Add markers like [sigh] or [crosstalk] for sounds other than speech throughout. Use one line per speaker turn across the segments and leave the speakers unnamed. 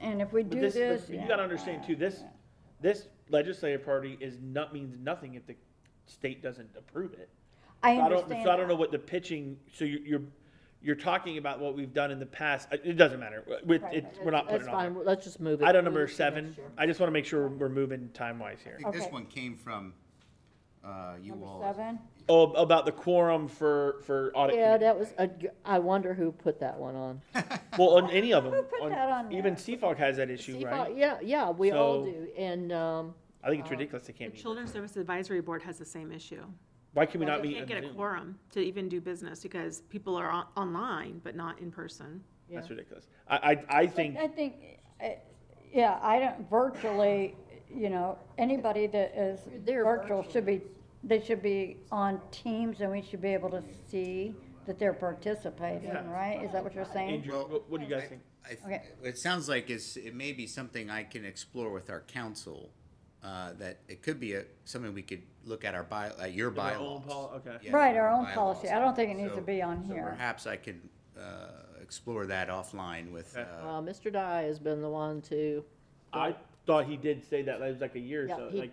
and if we
But
do
this-
this.
but You gotta understand too, this, this legislative party is not, means nothing if the state doesn't approve it.
I
So don't-
understand.
So I don't know what the pitching, so you- you're, you're talking about what we've done in the past, Uh, it doesn't matter, We-
Right,
it- we're not
That's
putting it on
fine,
there.
let's just move it.
Item
Move
number
it to next
seven,
year.
I just wanna make sure we're moving time-wise here.
I think this
Okay.
one came from, uh, you
Number
all.
seven,
Oh, about the quorum for, for audit.
Yeah,
committee.
that was, a g- I wonder who put that one on.
Well, on any of them,
put
on-
that on
even
there?
CFOG has that issue,
See,
right?
Yeah, yeah, we all
So-
do, and, um,
I
oh.
think it's ridiculous they can't
The
meet.
Children's Service Advisory Board has the same issue.
Why can we not
You
meet on
can't get a
Zoom?
quorum to even do business because people are on- online, but not in person.
That's ridiculous. I, I, I think,
I think, I- yeah, I don't, virtually, you know, anybody that is
They're
virtual should be, they should be on teams and we should be able to see that they're participating,
Yeah.
right? Is that what you're saying?
Andrew,
Well,
what what do you guys think?
I-
Okay.
It sounds like it's, it may be something I can explore with our council, uh, that it could be a, something we could look at our by, uh, your
Our own
bylaws.
pol- Okay.
Yeah,
Right, our own
bylaws.
policy. I don't think it needs to
So-
be on
so
here.
Perhaps I can, uh, explore that offline with,
Okay.
uh,
uh, Mr. Dye has been the one to,
I thought he did say that, like, it was like a year or
Yeah,
so,
he-
like,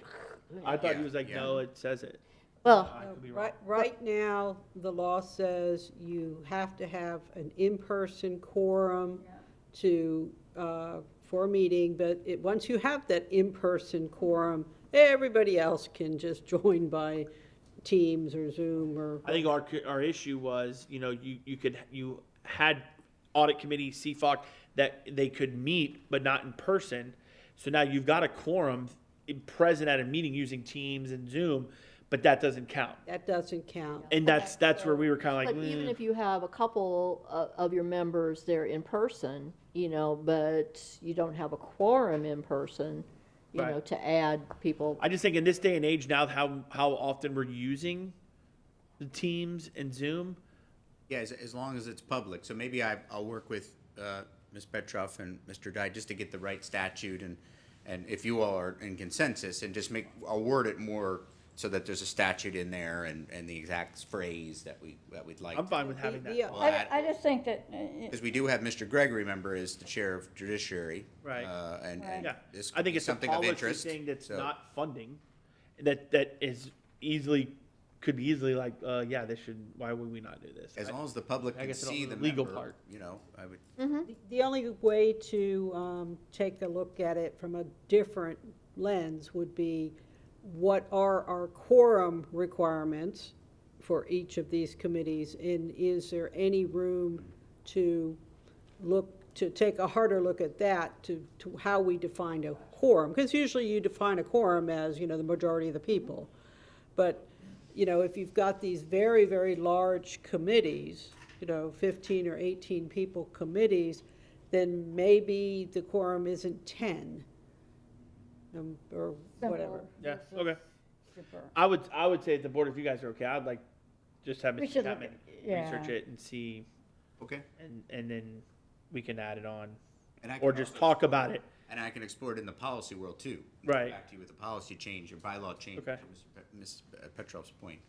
I thought he
Yeah,
was like,
yeah.
no, it says it.
well,
I could be wrong.
Right, right now, the law says you have to have an in-person quorum to, uh, for a meeting, but it, once you have that in-person quorum, everybody else can just [laughs] join by Teams or Zoom or,
I think our, our issue was, you know, you, you could, you had audit committee, CFOC, that they could meet, but not in person. So now you've got a quorum in- present at a meeting using Teams and Zoom, but that doesn't count.
that doesn't count.
And that's, that's where we were kind
but
of like,
even
"Mm."
if you have a couple of, of your members there in person, you know, but you don't have a quorum in person, you
Right.
know, to add people.
I just think in this day and age now, how, how often we're using the Teams and Zoom,
yeah, as, as long as it's public. So maybe I, I'll work with, uh, Ms. Petroff and Mr. Dye just to get the right statute and, and if you all are in consensus and just make, I'll word it more so that there's a statute in there and, and the exact phrase that we, that we'd like.
I'm
to-
fine with having
The-
that.
the-
Well,
I,
that-
I just think that, uh,
Because we do have Mr. Gregg, remember, is the chair of judiciary.
Right.
uh, And, and
Yeah,
this
I
could
think
be
it's a
something of
policy
interest.
thing that's
so-
not funding, that, that is easily, could be easily like, uh, yeah, this should, why would we not do this?
As
I-
long as the public
I
can
guess I don't
see
know
the
the legal
member,
part.
you know, I would,
The only way to um, take a look at it from a different lens would be what are our quorum requirements for each of these committees? And is there any room to look, to take a harder look at that, to, to how we define a quorum? Because usually you define a quorum as, you know, the majority of the people. But, you know, if you've got these very, very large committees, you know, fifteen or eighteen people committees, then maybe the quorum isn't ten. um, Or whatever.
simple
Yeah, okay.
super.
I would, I would say at the board, if you guys are okay, I'd like, just have
We
Mr.
should look
Chapman
at- yeah.
research it and see,
okay.
and, and then we can add it on,
And I
or
can
just
also-
talk about it.
And I can explore it in the policy world too.
Right.
Back to you with a policy change or bylaw change.
Okay.
to Mr. Pe- Ms. Petrov's point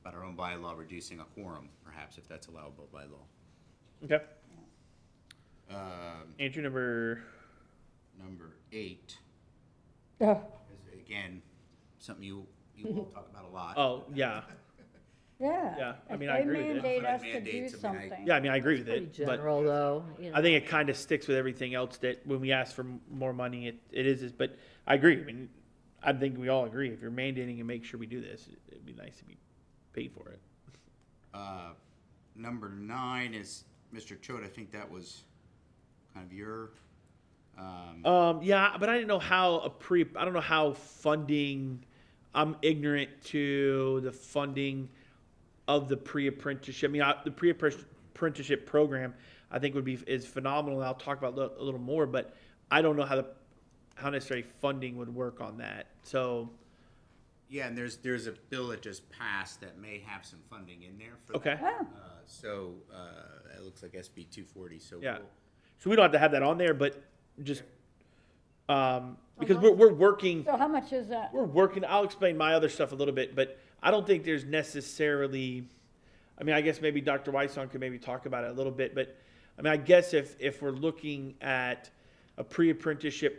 about our own bylaw reducing a quorum, perhaps, if that's allowable by law.
Okay,
Um,
Andrew, number,
Number eight
Ugh,
is, again, something you, you all talk about a lot.
[laughs] oh, yeah,
Yeah.
Yeah, I
If
mean, I agree with it.
They mandate
But
us to do
mandates, I mean, I-
something.
yeah, I mean, I agree with
Pretty
it, but.
general, though, you know.
I think it kind of sticks with everything else that when we ask for m- more money, it, it is, is- but I agree. I mean, I think we all agree. If you're mandating and make sure we do this, it'd be nice to be paid for it.
Uh, Number nine is, Mr. Choate, I think that was kind of your, um,
Um, yeah, but I didn't know how a pre, I don't know how funding, I'm ignorant to the funding of the pre-apprenticeship. I mean, I, the pre-apprenticeship program, I think would be, is phenomenal. and I'll talk about lo- a little more, but I don't know how the, how necessarily funding would work on that. So,
yeah, and there's, there's a bill that just passed that may have some funding in there for.
okay.
that. Uh, So, uh, it looks like SB two forty, so.
Yeah.
we'll-
So we don't have to have that on there, but just, um, because we're, we're working,
So how much is that?
we're working, I'll explain my other stuff a little bit, but I don't think there's necessarily, I mean, I guess maybe Dr. Weisong could maybe talk about it a little bit, but I mean, I guess if, if we're looking at, a pre-apprenticeship